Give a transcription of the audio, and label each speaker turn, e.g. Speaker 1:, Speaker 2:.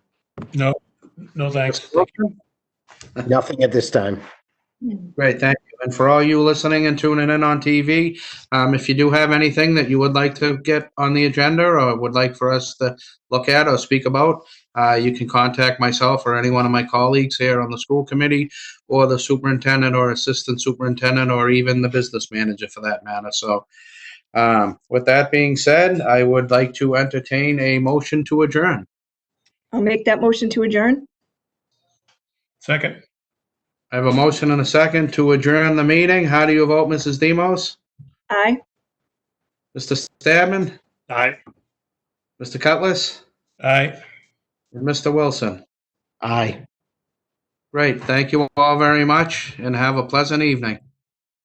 Speaker 1: No, no thanks.
Speaker 2: Nothing at this time.
Speaker 3: Great, thank you. And for all you listening and tuning in on TV, um, if you do have anything that you would like to get on the agenda or would like for us to look at or speak about, uh, you can contact myself or any one of my colleagues here on the school committee or the superintendent or assistant superintendent or even the business manager for that matter. So um, with that being said, I would like to entertain a motion to adjourn.
Speaker 4: I'll make that motion to adjourn.
Speaker 1: Second,
Speaker 3: I have a motion and a second to adjourn the meeting. How do you vote, Mrs. Demos?
Speaker 4: Aye.
Speaker 3: Mr. Stadman?
Speaker 1: aye,
Speaker 3: Mr. Cutlass
Speaker 1: aye.
Speaker 3: and Mr. Wilson.
Speaker 2: Aye.
Speaker 3: Great. Thank you all very much and have a pleasant evening.